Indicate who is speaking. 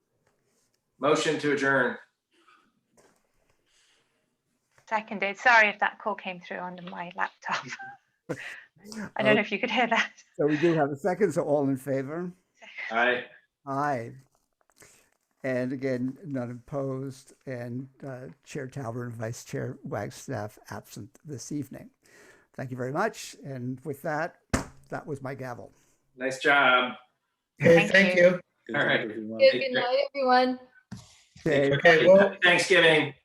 Speaker 1: Motion to adjourn.
Speaker 2: Seconded. Sorry if that call came through under my laptop. I don't know if you could hear that.
Speaker 3: So we do have a second, so all in favor?
Speaker 1: Aye.
Speaker 3: Aye. And again, none opposed, and uh, Chair Talbert and Vice Chair Wagstaff absent this evening. Thank you very much, and with that, that was my gavel.
Speaker 1: Nice job.
Speaker 4: Hey,
Speaker 2: Thank
Speaker 4: thank
Speaker 2: you.
Speaker 4: you.
Speaker 1: All right.
Speaker 5: Good good night, everyone.
Speaker 3: Okay.
Speaker 4: Okay, well,
Speaker 1: Thanksgiving.